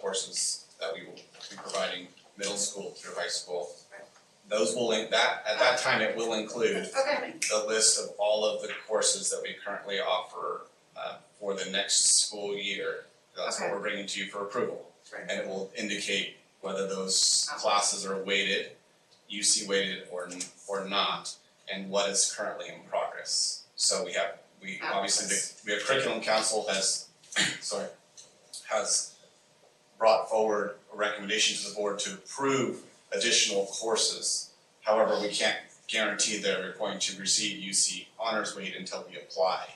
courses that we will be providing middle school through high school. Those will, in- that, at that time, it will include Okay, the list of all of the courses that we currently offer uh, for the next school year. That's what Okay. we're bringing to you for approval. Right. And it will indicate whether those classes are weighted, UC weighted or n- or not, and what is currently in progress. So we have, we Fabulous. obviously, the, we have curriculum council has, sorry, has brought forward a recommendation to the board to approve additional courses. However, we can't guarantee that we're going to receive UC honors weight until we apply.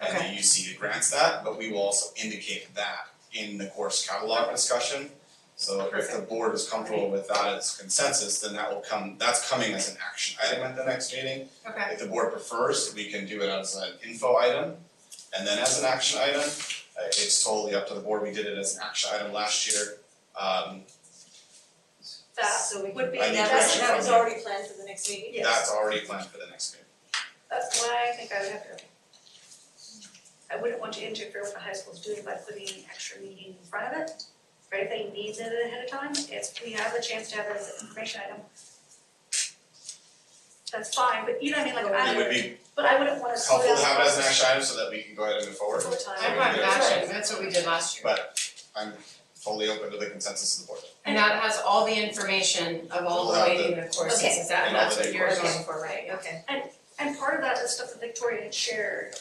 And Okay. the UC grants that, but we will also indicate that in the course catalog discussion. So if the board is comfortable with that as consensus, then that will come, that's coming as an action item at the next meeting. okay, If the board prefers, we can do it as an info item and then as an action item. Uh, It's totally up to the board. We did it as an action item last year. Um, That So we would can- be, I need that was, direction that was from you. already planned for the next meeting. Yes. that's already planned for the next meeting. That's why I think I would have to. I wouldn't want to interfere with the high school's doing by putting an extra meeting in front of it. Or if they need it ahead of time, it's, we have the chance to have it as an information item. That's fine, but you know what I mean, like I It would don't, be but I wouldn't wanna slow helpful down. to have it as an action item so that we can go ahead and move forward. Full time. I brought an action, that's what we did last year. But I'm fully open to the consensus of the board. And that has all the information of all the weighting of courses, Okay. is that, And all that's the what big you're courses. going for, right, okay. And part of that is stuff that Victoria had shared,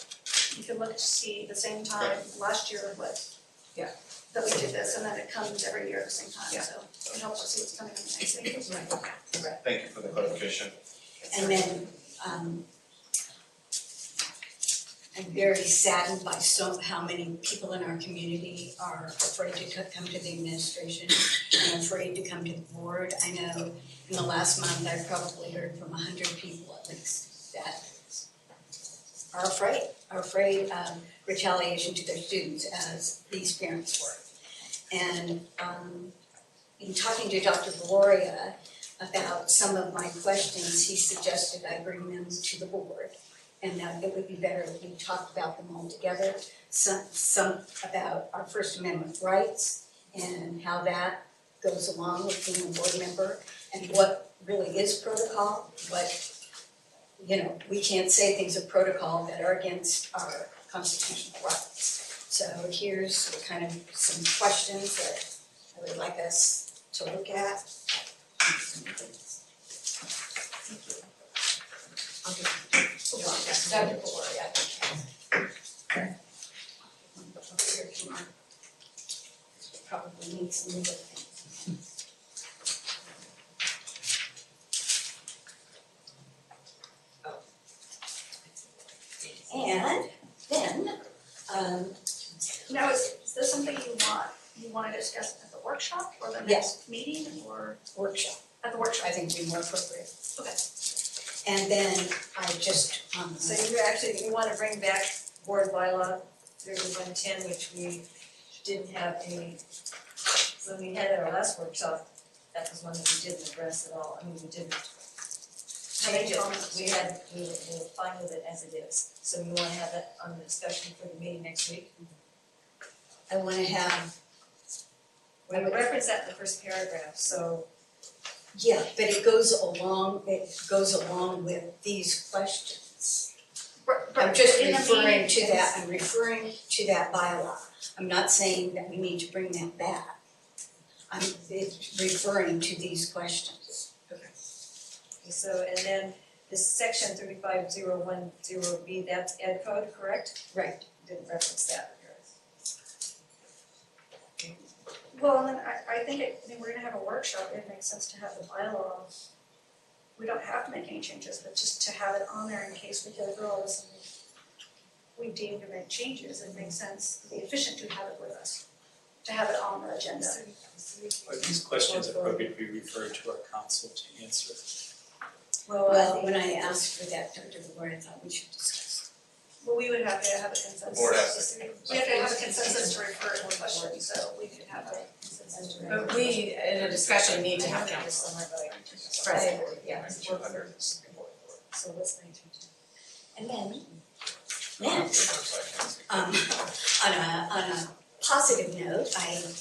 you can look to see the same time last year with what. Yeah. That we did this and then it comes every year at the same Yeah. time, so it helps us see what's coming in the next meeting. Thank you for the clarification. And then, um, I'm very saddened by so, how many people in our community are afraid to co- come to the administration and afraid to come to the board. I know in the last month, I've probably heard from a hundred people at least that are afraid, are afraid of retaliation to their students as these parents were. And, um, in talking to Dr. Gloria, about some of my questions, he suggested I bring them to the board. And that it would be better if we talked about them all together, some, some about our First Amendment rights and how that goes along with being a board member and what really is protocol, what, you know, we can't say things of protocol that are against our constitutional rights. So here's kind of some questions that I would like us to look at Dr. Gloria. Probably needs some new things. And then, um, Now, is, is this something you want, you wanna discuss at the workshop or the next Yes. meeting or workshop. at the workshop? I think would be more appropriate. Okay. And then I just, um, say, So you're actually, you wanna bring back board bylaw thirty-one ten, which we didn't have any, when we had our last workshop, that was one that we didn't address at all, I mean, we didn't change it, we had, we were, we were fine with it as it is, so we wanna have that on the discussion for the meeting next week. I wanna have, We reference that in the first paragraph, so yeah, but it goes along, it goes along with these questions. Right, I'm right, just in the referring to meeting, that, I'm referring to that bylaw. I'm not saying that we need to bring that back. I'm it's referring to these questions. So, and then this section thirty-five zero one zero B, that's ed code, correct? Right. Didn't reference that. Well, and then I, I think it, I mean, we're gonna have a workshop, it makes sense to have the bylaw. We don't have to make any changes, but just to have it on there in case we go through all this and we deem to make changes, it makes sense, it'd be efficient to have it with us, to have it on the agenda. Are these questions appropriate to be referred to our council to answer? Well, uh, I um, Well, think- when I asked for that, Dr. Lord, I thought we should discuss. Well, we would have to have a consensus. Board has We have to have a consensus to refer to a question, so we could have a consensus to refer. But we, in a discussion, need to have council. Right, yeah. Two hundred is important. So what's nineteen? And then, Not on then, paper, so I can't speak. um, on a, on a positive note, I